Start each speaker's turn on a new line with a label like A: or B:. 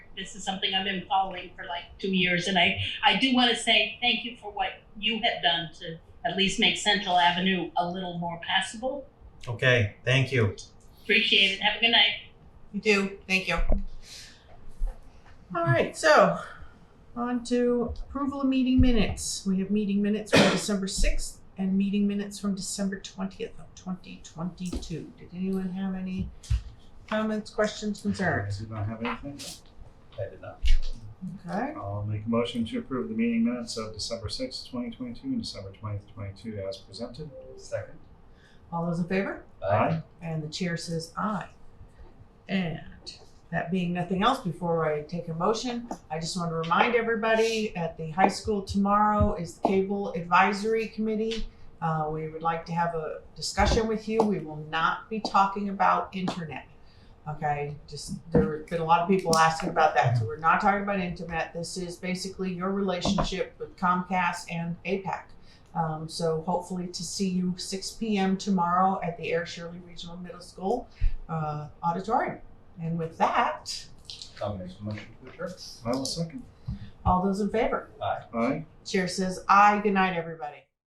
A: This is something I've been following for like two years, and I, I do want to say thank you for what you have done to at least make Central Avenue a little more passable.
B: Okay, thank you.
A: Appreciate it. Have a good night.
C: You do, thank you. All right, so on to approval of meeting minutes. We have meeting minutes from December sixth and meeting minutes from December twentieth of twenty twenty-two. Did anyone have any comments, questions, concerns?
D: did not have anything.
B: I did not.
C: Okay,
D: I'll make a motion to approve the meeting minutes of December sixth, twenty twenty-two, and December twentieth, twenty-two, as presented.
B: Second.
C: all those in favor?
D: Aye.
C: And the chair says aye. And that being nothing else, before I take a motion, I just want to remind everybody at the high school tomorrow is the Cable Advisory Committee. Uh, we would like to have a discussion with you. We will not be talking about internet. Okay, just there have been a lot of people asking about that, so we're not talking about internet. This is basically your relationship with Comcast and APAC. Um, so hopefully to see you 6 p.m. tomorrow at the Air Shirley Regional Middle School uh, auditorium. And with that,
B: I'll make a motion to adjourn.
D: I will second.
C: all those in favor,
B: Aye.
D: Aye.
C: chair says aye. Good night, everybody.